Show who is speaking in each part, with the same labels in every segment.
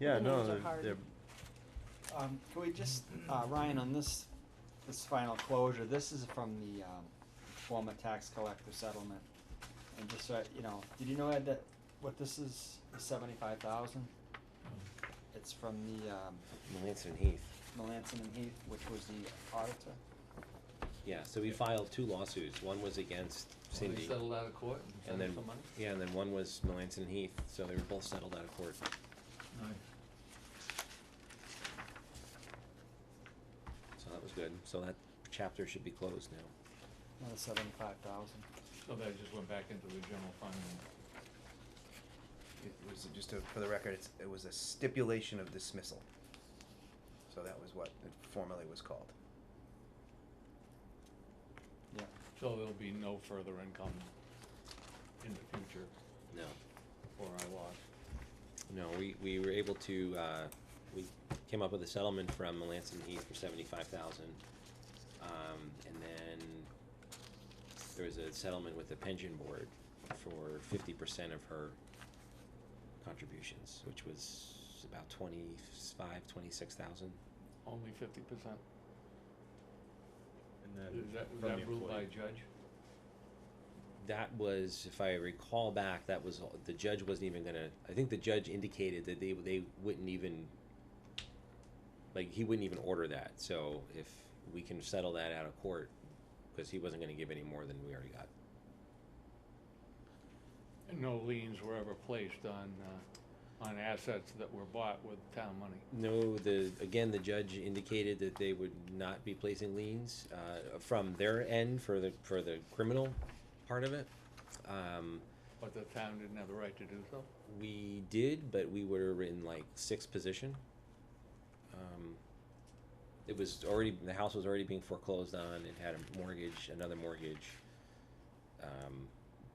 Speaker 1: Yeah,
Speaker 2: The
Speaker 1: no,
Speaker 2: names are
Speaker 1: they're,
Speaker 2: hard.
Speaker 1: they're,
Speaker 3: Um, can we just, uh, Ryan, on this, this final closure, this is from the, um, former tax collector settlement. And just, so I- you know, did you know, Ed, that what this is, seventy-five thousand? It's from the, um,
Speaker 4: Melanson Heath.
Speaker 3: Melanson and Heath, which was the auditor.
Speaker 4: Yeah, so we filed two lawsuits. One was against
Speaker 5: They
Speaker 4: Cindy.
Speaker 5: settled out of court
Speaker 4: And
Speaker 5: and
Speaker 4: then,
Speaker 5: sent for money?
Speaker 4: yeah, and then one was Melanson Heath, so they were both settled out of court. So that was good. So that chapter should be closed now.
Speaker 3: Another seventy-five thousand.
Speaker 5: So that just went back into the general fund
Speaker 6: It was just a, for the record, it's, it was a stipulation of dismissal. So that was what it formerly was called.
Speaker 3: Yeah,
Speaker 5: so there'll be no further income in the future
Speaker 4: No.
Speaker 5: for our lot.
Speaker 4: No, we, we were able to, uh, we came up with a settlement from Melanson Heath for seventy-five thousand. Um, and then there was a settlement with the pension board for fifty percent of her contributions, which was about twenty-five, twenty-six thousand.
Speaker 5: Only fifty percent.
Speaker 1: and then
Speaker 5: Is that, was
Speaker 1: from
Speaker 5: that
Speaker 1: the
Speaker 5: ruled by
Speaker 1: employee.
Speaker 5: a judge?
Speaker 4: That was, if I recall back, that was, all- the judge wasn't even gonna, I think the judge indicated that they, they wouldn't even, like, he wouldn't even order that, so if we can settle that out of court, cause he wasn't gonna give any more than we already got.
Speaker 5: And no liens were ever placed on, uh, on assets that were bought with town money.
Speaker 4: No, the, again, the judge indicated that they would not be placing liens, uh, from their end for the, for the criminal part of it. Um,
Speaker 5: But the town didn't have the right to do so?
Speaker 4: we did, but we were in like sixth position. Um, it was already the house was already being foreclosed on. It had a mortgage, another mortgage. Um,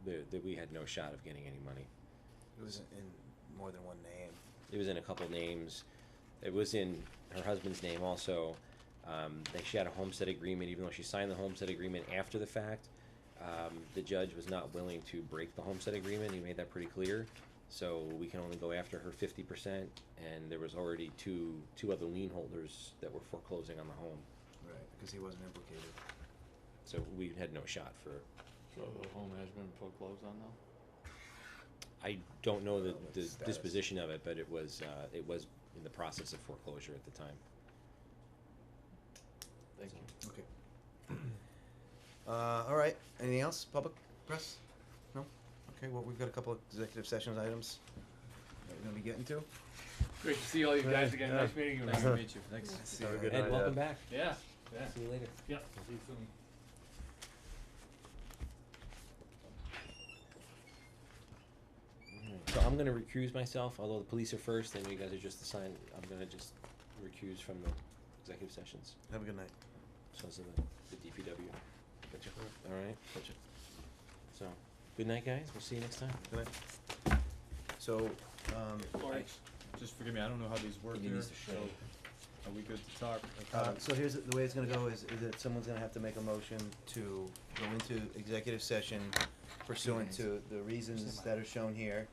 Speaker 4: that that we had no shot of getting any money.
Speaker 6: It was in more than one name.
Speaker 4: It was in a couple names. It was in her husband's name also. Um, that she had a homestead agreement, even though she signed the homestead agreement after the fact. Um, the judge was not willing to break the homestead agreement. He made that pretty clear. So we can only go after her fifty percent, and there was already two two other lien holders that were foreclosing on the home.
Speaker 6: Right, because he wasn't implicated.
Speaker 4: So we had no shot for.
Speaker 5: So the home has been foreclosed on now?
Speaker 4: I don't know the,
Speaker 6: Well, what's
Speaker 4: the
Speaker 6: the status?
Speaker 4: disposition of it, but it was uh, it was in the process of foreclosure at the time.
Speaker 5: Thank you.
Speaker 6: Okay. Uh, all right, anything else, public press? No? Okay, well, we've got a couple of executive sessions items that we're gonna be getting to.
Speaker 5: Great to see all you guys again, nice meeting you.
Speaker 1: Nice to meet you. Thanks.
Speaker 6: See you later.
Speaker 4: Ed, welcome back.
Speaker 5: Yeah, yeah,
Speaker 4: See you later.
Speaker 5: yeah, see you soon.
Speaker 4: So I'm gonna recuse myself, although the police are first, and you guys are just assigned, I'm gonna just recuse from the executive sessions,
Speaker 6: Have a good night.
Speaker 4: so is the, the DPW. Alright,
Speaker 6: Gotcha.
Speaker 4: so, good night, guys, we'll see you next time.
Speaker 6: Good night. So, um,
Speaker 1: Sorry. Just forgive me, I don't know how these work
Speaker 4: Give me
Speaker 1: here,
Speaker 4: these to
Speaker 1: so
Speaker 4: show.
Speaker 1: are we good to talk?
Speaker 6: Uh, so here's, the way it's gonna go is, is that someone's gonna have to make a motion to go into executive session pursuant to the reasons that are shown here,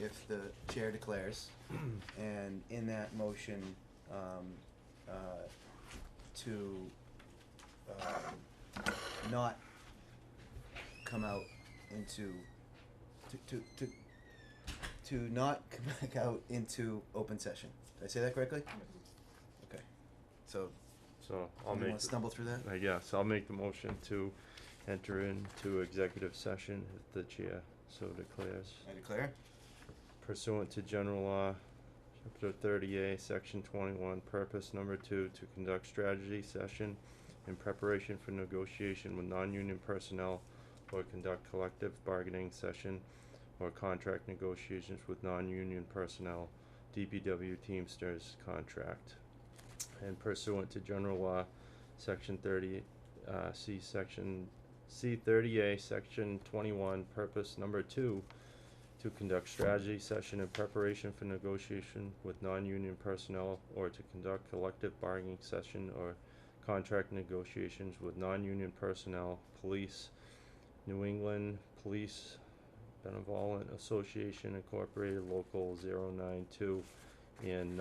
Speaker 6: if the chair declares. And in that motion, um, uh, to, um, not come out into, to, to, to, to not come back out into open session. Did I say that correctly? Okay. So
Speaker 7: So I'll
Speaker 6: Anyone
Speaker 7: make,
Speaker 6: wanna stumble through that?
Speaker 7: the- I guess, I'll make the motion to enter into executive session if the chair so declares
Speaker 6: I declare.
Speaker 7: pursuant to general law, chapter thirty A, section twenty-one, purpose number two, to conduct strategy session in preparation for negotiation with non-union personnel or conduct collective bargaining session or contract negotiations with non-union personnel, DPW Teamsters contract. And pursuant to general law, section thirty, uh, C, section, C thirty A, section twenty-one, purpose number two, to conduct strategy session in preparation for negotiation with non-union personnel or to conduct collective bargaining session or contract negotiations with non-union personnel, police, New England Police Benevolent Association Incorporated Local 092 and